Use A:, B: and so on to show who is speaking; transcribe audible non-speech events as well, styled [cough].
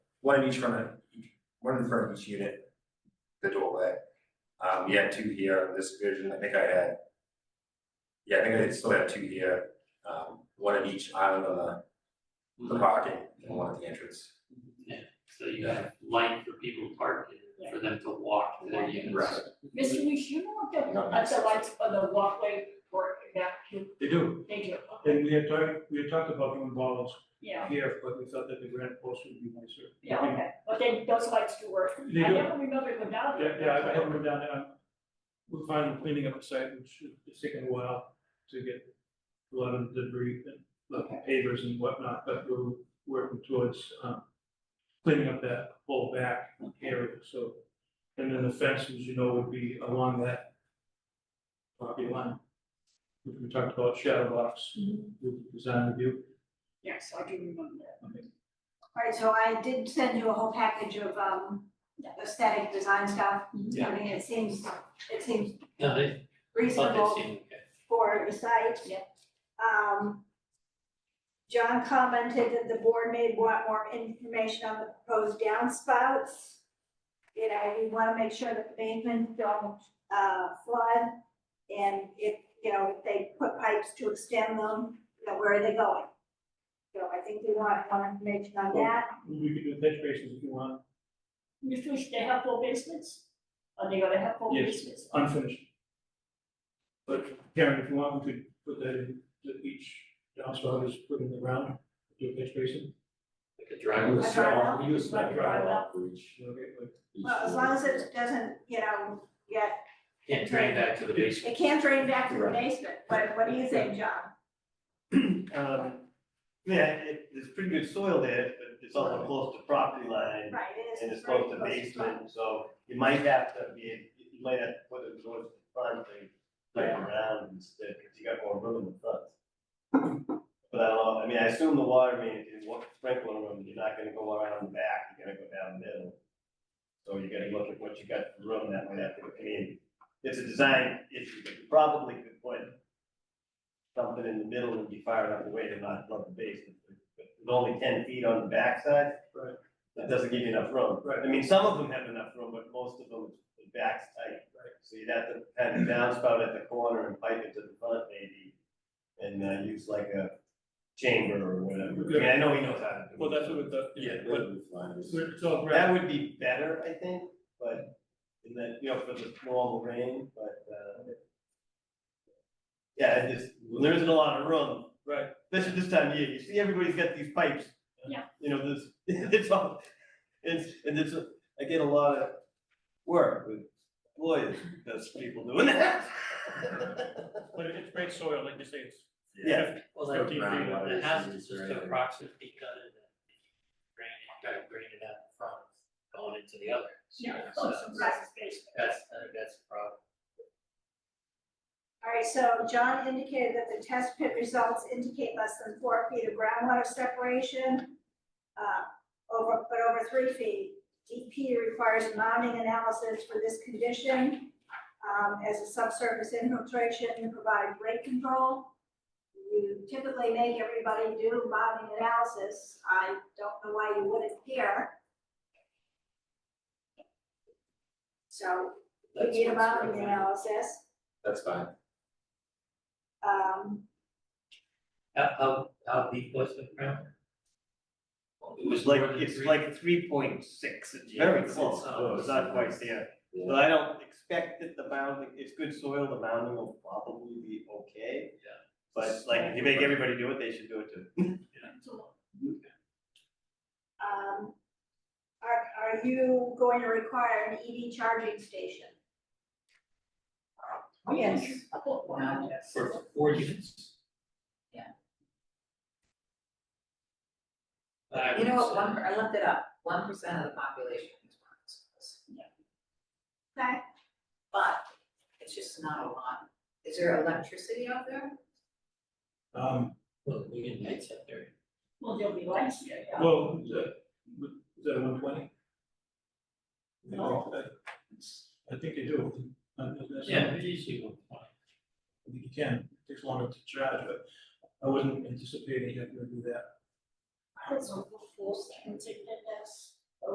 A: one in each front of, each- one in front of each unit, the doorway. Um, we had two here in this version, I think I had. Yeah, I think I still had two here, um, one at each island on the,
B: Mm-hmm.
A: the parking and one at the entrance.
C: So you have light for people to park and for them to walk to their units.
A: Right.
D: Mr. Luce, you know what the,
A: No,
D: uh, the
A: no.
D: lights on the walkway for that, you-
B: They do,
D: they do, okay,
B: and we had talked, we had talked about doing balls
D: yeah,
B: here, but we thought that the granite post would be nicer.
D: yeah, okay, but then those lights do work.
B: They
D: I
B: do.
D: never remember them down
B: Yeah,
D: there.
B: yeah, I- I haven't been down there, I'm, we're finally cleaning up the site, which is taking a while to get a lot of debris and like, pavers and whatnot, but we're working towards, um, cleaning up that whole back area, so. And then the fences, you know, would be along that property line. which We talked about shadow box,
D: Mhm.
B: with design review.
D: Yes, I do remember that.
E: Alright, so I did send you a whole package of um aesthetic design stuff. I
C: Yeah.
E: mean, it seems, it seems
C: No, they, I thought they
E: reasonable
C: seemed okay.
E: for the site.
D: Yeah.
E: Um, John commented that the board may want more information on the proposed downspouts. You know, we wanna make sure that the basements don't uh flood. And if, you know, if they put pipes to extend them, you know, where are they going? So I think we want more information on that.
B: We could do catch basins if you want,
D: Mr. Luce, they have four basements? Are they gonna have four
B: Yes.
D: basements?
B: unfinished. But Karen, if you want, we could put that in, that each downspout is put in the ground, do a catch basin.
C: Like a driveway.
E: I drive out.
F: We use that drive out for each.
B: you know, get like-
F: each
E: Well, as long as it doesn't, you know, get,
C: Can't drain back to the basement.
E: it can't drain back to the basement, what, what do you think, John?
G: [clears throat] Um, yeah, it, there's pretty good soil there, but it's also close to property line,
E: Right, it is.
G: and it's
E: very
G: close to
E: front.
G: basement, so you might have to be, you might have to put it towards the front, like, like around instead, because you got more room in the front. But I don't know, I mean, I assume the water main, if you want sprinkler room, you're not gonna go around the back, you're gonna go down the middle. So you gotta look at what you got for room, that might have to, I mean, it's a design issue, but you probably could put something in the middle and be far enough away to not flood the basement. But with only ten feet on the backside.
B: Right.
G: That doesn't give you enough room.
B: Right.
G: I mean, some of them have enough room, but most of them, the back's tight. Right. So you'd have to have the downspout at the corner and pipe it to the front maybe, and uh, use like a chamber or whatever. I mean, I know he knows how to do it.
B: Well, that's what the, yeah,
F: Yeah,
B: but
F: with lines.
B: it's all grass.
G: That would be better, I think, but in that, you know, for the normal rain, but, uh. Yeah, it just, there isn't a lot of room.
B: Right.
G: Especially this time of year, you see everybody's got these pipes.
D: Yeah.
G: You know, this, [laughs] it's all, it's, and it's, I get a lot of work with lawyers, that's people doing that. [laughs]
B: But it's great soil, like you say, it's.
G: Yeah.
C: Well, that
B: Fifteen
C: ground
B: feet.
C: water, it has to
F: It's
C: just
F: very-
C: approximately cut it. and Drain it, kind of drain it out in front, going into the other. So
D: Yeah,
C: it's,
D: oh,
C: uh,
D: some size space.
C: That's, I think that's the problem.
E: All right, so John indicated that the test pit results indicate less than four feet of groundwater separation. uh, Over, but over three feet, DP requires mounting analysis for this condition. um, as a subsurface infiltration to provide rate control. You typically make everybody do mounting analysis, I don't know why you wouldn't here. So, we
C: That's
E: need a
C: what's
E: mounting
C: recommended.
E: analysis.
F: That's fine.
E: Um,
C: How, how, how deep was the ground?
G: It was like, it's like three point six, it's
C: Yeah,
G: very
C: it's-
G: close,
C: it's, uh,
G: though it's not quite there.
F: Yeah.
G: But I don't expect that the mounding, it's good soil, the mounding will probably be okay.
C: Yeah.
G: But like, if you make everybody do it, they should do it too.
D: So,
E: um, are, are you going to require an EV charging station?
H: Yes.
D: I thought, wow, yes.
C: For four units?
H: Yeah.
C: I
H: You know
C: would
H: what,
C: say-
H: one, I looked it up, one percent of the population is running schools,
E: Okay,
H: but it's just not a lot. Is there electricity out there?
B: Um,
C: Well, we get lights up there.
D: Well, there'll be lights there, yeah.
B: well, is that, is that one twenty?
D: No.
B: I think they do. Uh, that's-
C: Yeah, we usually one point.
B: I think you can, it takes longer to charge, but I wasn't anticipating having to do that.
D: I don't know, the force, I can take that as.